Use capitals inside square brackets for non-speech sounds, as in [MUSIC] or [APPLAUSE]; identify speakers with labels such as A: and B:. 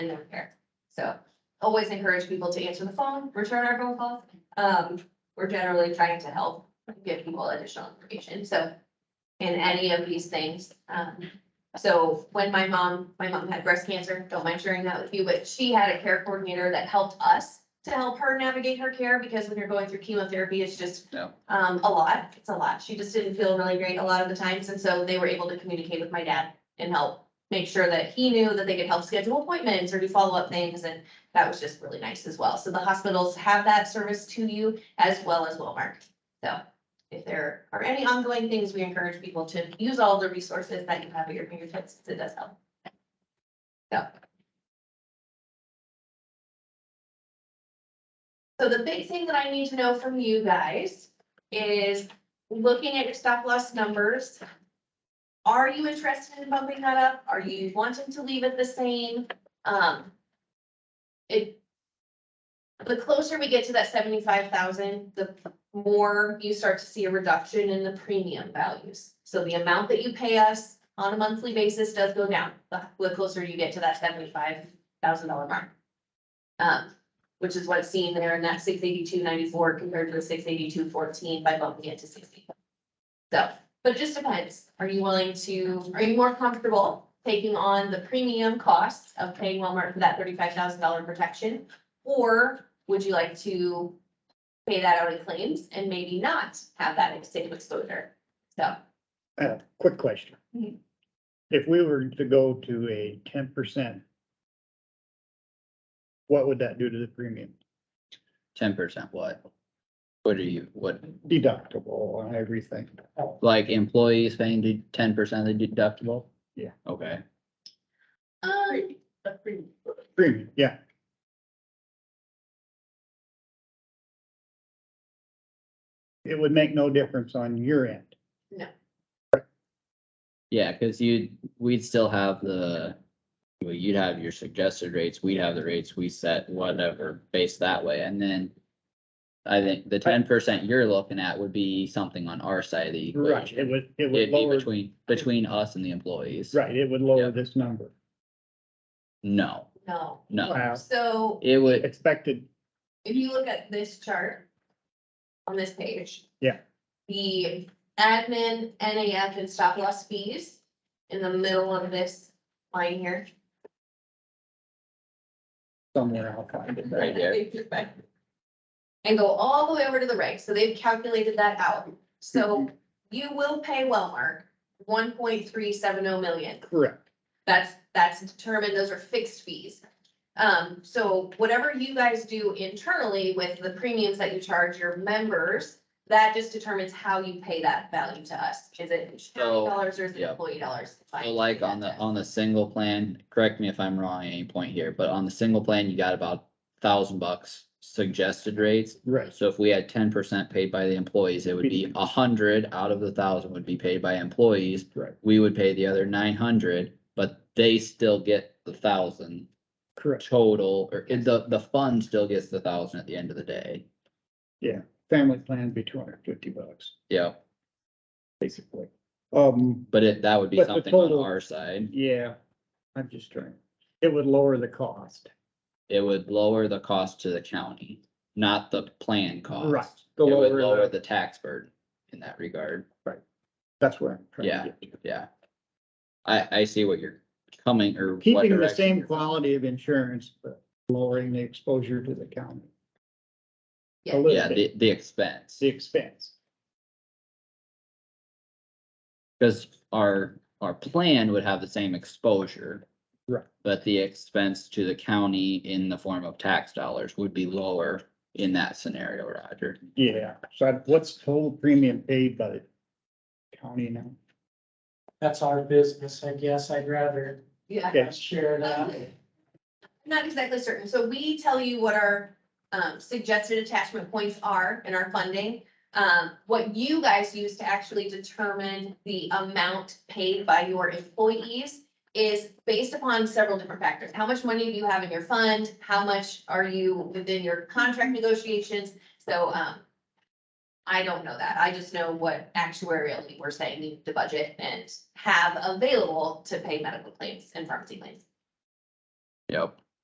A: and they're there. So always encourage people to answer the phone, return our phone calls. Um, we're generally trying to help give people additional information, so in any of these things, um, so when my mom, my mom had breast cancer, don't mind sharing that with you, but she had a care coordinator that helped us to help her navigate her care, because when you're going through chemotherapy, it's just
B: Yeah.
A: um, a lot, it's a lot. She just didn't feel really great a lot of the times, and so they were able to communicate with my dad and help make sure that he knew that they could help schedule appointments or do follow-up things, and that was just really nice as well. So the hospitals have that service to you as well as Wellmark. So if there are any ongoing things, we encourage people to use all the resources that you have at your fingertips. 'cause It does help. So. So the big thing that I need to know from you guys is looking at your stop loss numbers. Are you interested in bumping that up? Are you wanting to leave it the same? Um. It. The closer we get to that seventy-five thousand, the more you start to see a reduction in the premium values. So the amount that you pay us on a monthly basis does go down, the, the closer you get to that seventy-five thousand dollar mark. Um, which is what's seen there in that six eighty-two ninety-four compared to the six eighty-two fourteen by bumping it to sixty. So, but it just depends, are you willing to, are you more comfortable taking on the premium costs of paying Walmart for that thirty-five thousand dollar protection? Or would you like to pay that out in claims and maybe not have that same exposure. So,
C: Uh, quick question.
A: Mhm.
C: If we were to go to a ten percent, what would that do to the premium?
B: Ten percent what? What are you, what,
C: Deductible and everything.
B: like employees paying ten percent of the deductible?
C: Yeah.
B: Okay,
A: um,
C: Premium, yeah. It would make no difference on your end.
B: yeah, cause you, we'd still have the, well, you'd have your suggested rates, we'd have the rates we set, whatever, based that way, and then. I think the ten percent you're looking at would be something on our side of the equation.
C: It would, it would
B: It'd be
C: lower,
B: between, between us and the employees.
C: right, it would lower
B: Yep.
C: this number.
B: No,
A: no.
B: no,
C: Wow.
A: So
B: it would,
C: Expected,
A: if you look at this chart on this page.
C: Yeah.
A: The admin, NAF and stop loss fees in the middle of this line here.
C: somewhere I'll find it.
B: Right there.
A: [LAUGHS] And go all the way over to the right, so they've calculated that out. So you will pay Wellmark one point three seven oh million.
C: Correct.
A: That's, that's determined, those are fixed fees. Um, so whatever you guys do internally with the premiums that you charge your members, that just determines how you pay that value to us. Is it county
B: So,
A: dollars or is it
B: yeah.
A: employee dollars? It's fine.
B: So like on the, on the single plan, correct me if I'm wrong at any point here, but on the single plan, you got about thousand bucks suggested rates.
C: Right,
B: So if we had ten percent paid by the employees, it would be a hundred out of the thousand would be paid by employees.
C: Right.
B: We would pay the other nine hundred, but they still get the thousand
C: correct.
B: total, or the, the fund still gets the thousand at the end of the day.
C: Family plan would be two hundred fifty bucks,
B: Yeah,
C: basically. Um,
B: but it, that would be
C: But the
B: something on
C: total-
B: our side.
C: Yeah, I'm just trying, it would lower the cost.
B: It would lower the cost to the county, not the plan cost.
C: Right.
B: It
C: The
B: would
C: lower,
B: lower
C: the-
B: the tax burden in that regard.
C: that's where I'm trying to get to.
B: Yeah. I, I see what you're coming or. what
C: Keeping the
B: direction
C: same
B: you're-
C: quality of insurance, but lowering the exposure to the county.
A: Yeah.
C: A
B: Yeah,
C: little bit,
B: the, the expense,
C: the expense.
B: because our, our plan would have the same exposure.
C: Right.
B: But the expense to the county in the form of tax dollars would be lower in that scenario, Roger.
C: Yeah, so I- what's total premium paid by the county now?
D: That's our business, I guess. I'd rather
A: Yeah.
C: Yeah.
D: share that.
A: Not exactly certain. So we tell you what our um suggested attachment points are in our funding. Um, what you guys use to actually determine the amount paid by your employees is based upon several different factors. How much money do you have in your fund? How much are you within your contract negotiations? So um. I don't know that. I just know what actuarially we're saying we need to budget and have available to pay medical claims and pharmacy claims.
B: Yep.